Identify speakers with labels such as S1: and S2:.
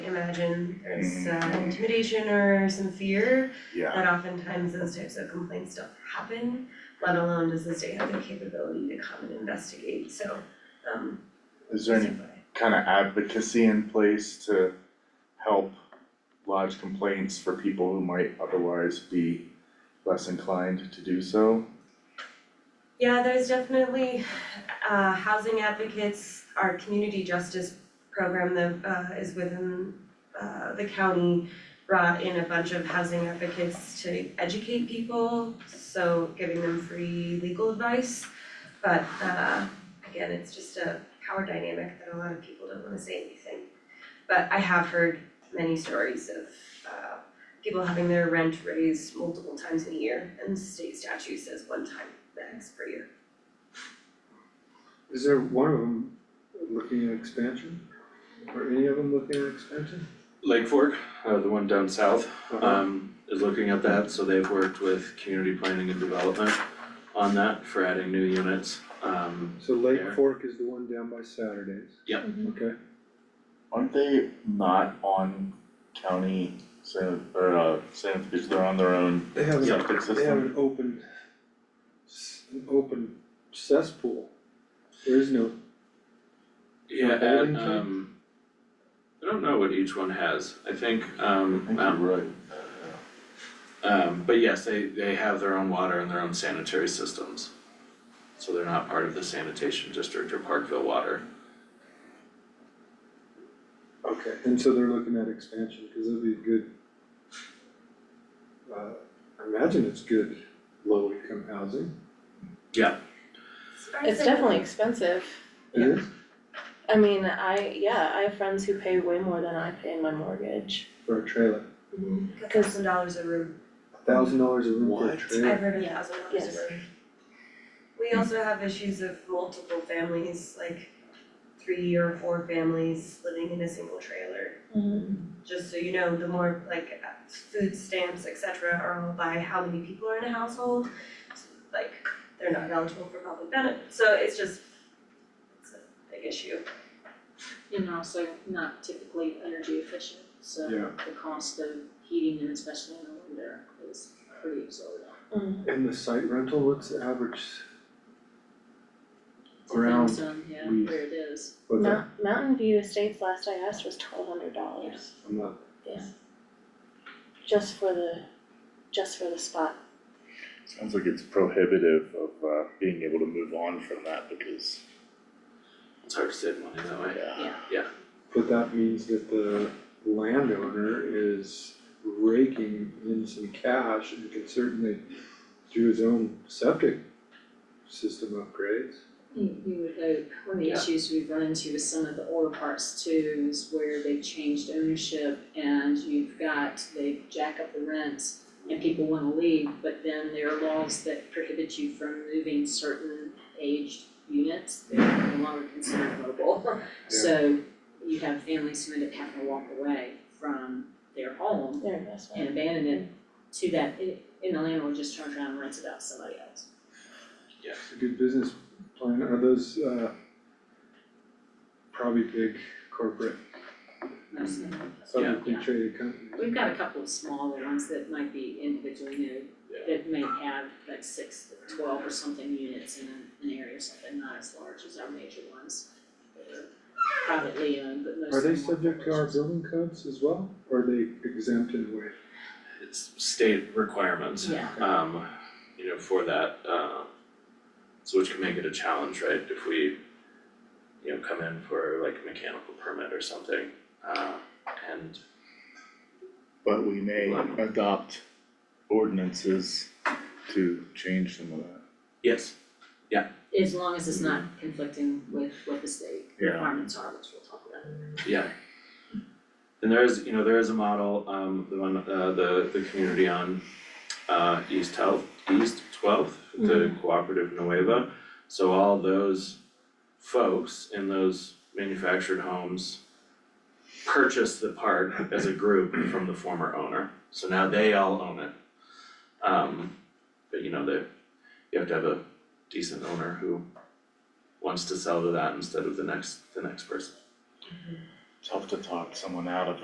S1: imagine there's uh,
S2: Mhm.
S1: intimidation or some fear
S2: yeah,
S1: that oftentimes those types of complaints don't happen, let alone does the state have the capability to come and investigate, so um
S2: is there any kind of advocacy in place to help lodge complaints for people who might otherwise be less inclined to do so?
S1: Yeah, there's definitely uh housing advocates, our community justice program that uh is within uh the county brought in a bunch of housing advocates to educate people, so giving them free legal advice. But uh again, it's just a power dynamic that a lot of people don't wanna say anything. But I have heard many stories of uh people having their rent raised multiple times in a year and the state statute says one time max per year.
S3: Is there one of them looking at expansion? Or any of them looking at expansion?
S4: Lake Fork, uh, the one down south,
S3: Uh-huh.
S4: um, is looking at that, so they've worked with community planning and development on that for adding new units. Um,
S3: So Lake
S4: there.
S3: Fork is the one down by Saturdays?
S4: Yep.
S3: Okay,
S2: Aren't they not on county san- or uh sanification, they're on their own
S3: they have, an-
S2: septic
S3: they have
S2: system?
S3: an open, s- an open cesspool. There is no,
S4: yeah,
S3: For bowling
S4: and, um, I don't know what each one has, I think, um,
S2: I think
S4: um,
S2: you're right.
S4: um, but yes, they, they have their own water and their own sanitary systems. So they're not part of the sanitation district or Parkville Water.
S3: okay, and so they're looking at expansion, cause it'd be a good. Uh, I imagine it's good low income housing,
S5: It's definitely expensive.
S3: it is,
S5: I mean, I, yeah, I have friends who pay way more than I pay in my mortgage.
S3: for a trailer,
S1: A thousand dollars a room,
S3: a thousand dollars a room for a
S4: What?
S3: trailer.
S1: I've heard a
S5: Yeah.
S1: thousand dollars a room.
S5: Yes.
S1: We also have issues of multiple families, like three or four families living in a single trailer. Just so you know, the more like uh, food stamps, et cetera, are all by how many people are in a household. So, Like, they're not eligible for public benefit, so it's just, it's a big issue.
S6: And also not typically energy efficient, so
S3: Yeah.
S6: the cost of heating and especially in the winter is pretty exorbitant.
S3: And the site rental, what's the average?
S6: It's a
S3: Around
S6: thing, so, yeah,
S3: we-
S6: where it is.
S3: What's that?
S5: Mount, Mountain View Estates last I asked was twelve hundred dollars,
S3: I'm not,
S5: just for the, just for the spot.
S7: Sounds like it's prohibitive of uh being able to move on from that because,
S4: It's hard to save money that way.
S7: yeah,
S3: but that means that the landowner is raking in some cash and can certainly do his own septic system upgrades.
S6: You Mm, you would hope, one of the
S4: Yeah.
S6: issues we've run into with some of the older parts too is where they've changed ownership and you've got, they jack up the rents and people wanna leave, but then there are laws that prohibit you from moving certain aged units, they're no longer considered mobile. So you have families who end up having to walk away from their home
S5: Their investment.
S6: and abandon it to that, and the landlord just turns around and rents it out to somebody else.
S3: It's a good business plan, are those uh probably big corporate,
S4: Yeah.
S3: publicly traded companies?
S6: We've got a couple of smaller ones that might be individually new, that may have like six, to twelve or something units in an area or something, not as large as our major ones. that are Privately owned, but most
S3: Are
S6: of
S3: they
S6: them
S3: subject to our building codes as well, or are they exempt in a way?
S4: It's state requirements.
S6: Yeah,
S4: um, you know, for that, uh, so which can make it a challenge, right, if we, you know, come in for like a mechanical permit or something, uh, and
S7: but we may adopt ordinances to change some of that.
S4: yes,
S6: as long as it's not conflicting with what the state
S7: Yeah.
S6: requirements are, which we'll talk about.
S4: yeah. And there is, you know, there is a model, um, the one, uh, the, the community on, uh, East Health, East Twelfth, the Cooperative Nueva. So all those folks in those manufactured homes purchased the part as a group from the former owner, so now they all own it. Um, but you know, they, you have to have a decent owner who wants to sell to that instead of the next, the next person.
S7: Tough to talk someone out of